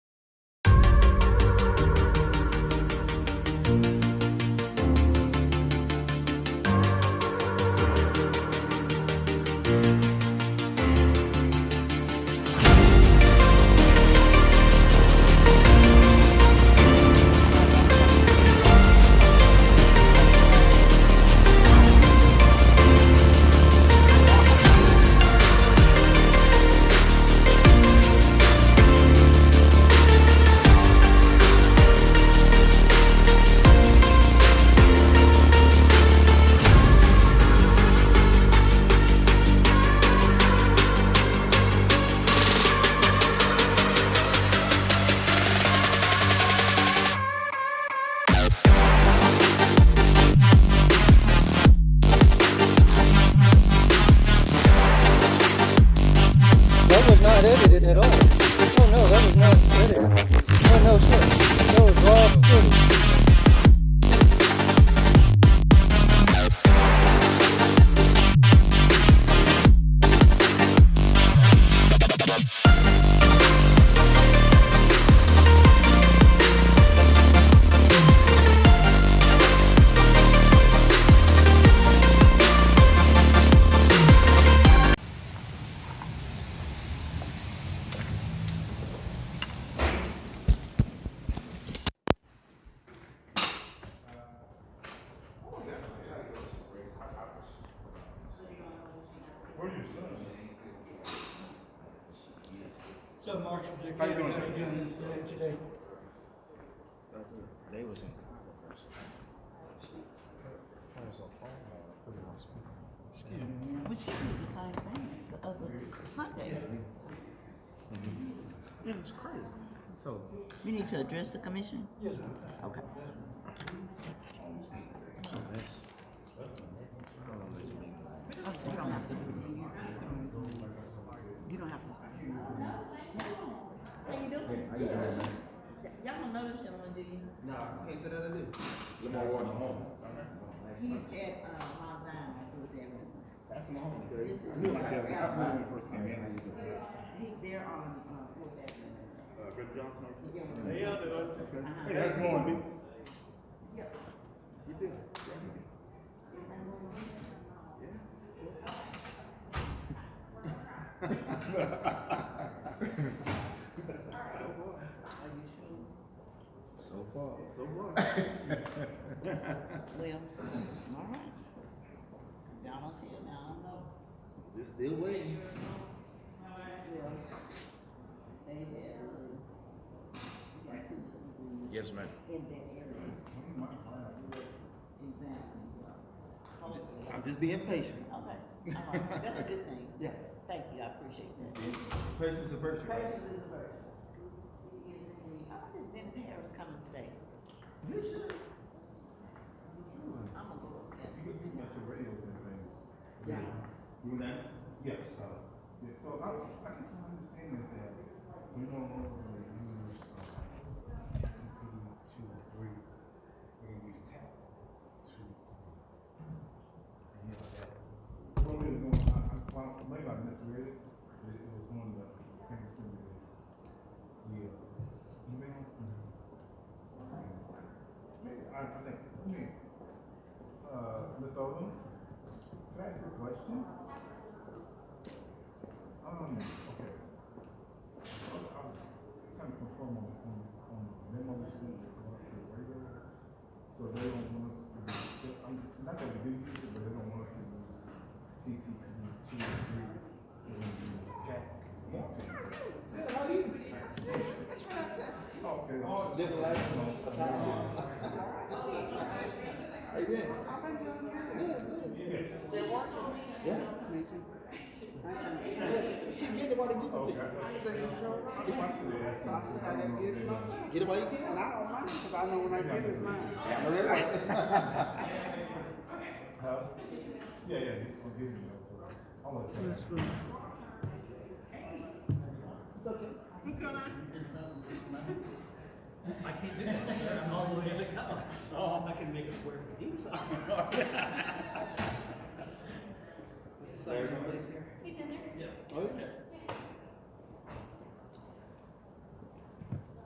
marshals that How you came doing, down sir? again today- today. They was in. But you do the same thing the other Sunday. Mm-hmm. It is crazy. So You need to address the commission? Yes, ma'am. Okay. so that's You don't have to. You don't have to. How you doing? Y'all don't know this gentleman, do you? No, I can't say that I do. He's at, uh, Mount Zion, I do That's my home. This is- You know, I said, I remember when you first came in. How you doing? He's there on, uh, Fourth Avenue. Uh, Brother Johnson. over Yeah. there? Hey, y'all doing? Uh-huh. Hey, how's it going, B? Yep. You doing? So, what? are you sure? so far. Oh, So what? Well, all right. Y'all don't tell me, I don't know. Just still waiting. Well, they have, uh, like two people Yes, ma'am. in that area. Exactly. Hopefully. I'm just being patient. Okay, all right, that's a good thing. Yeah. Thank you, I appreciate that. Patience is a virtue. Praises is first. I just didn't think I was coming today. You should. I'm gonna go up there. Yeah. You and that? Yes. Yeah, so I, I guess my understanding is that we don't normally use, uh, CP two or three, when we tap two. You know, that, what we were doing, I, I, well, maybe I misread it, but it was on the, I think it's in the, the uh, email. Maybe, I, I think, okay, uh, Ms. Owens? Can I ask you a question? Um, okay. So I was trying to confirm on, on, on the memo that you sent across the radio. So they don't want us to, be- I'm, not that we didn't use it, but they don't want us to use TCP two or three. They want to use TAC one. Okay. Oh, different life. How you been? Good, good. Yes. Yeah, me too. Yeah, you get the one to Okay. get it I to. just Yeah. wanted to ask So you. I said I gotta give it to myself. Get it while you can. And I don't mind, cause I know when I get it's mine. Yeah, no, that's right. Huh? Yeah, yeah, he's gonna give me that, so I'll let him. I can't do that. sir. I'm all the way in the colors. Oh, I can make it where the needs are. Is this our place here? He's in there? Yes. Oh, yeah.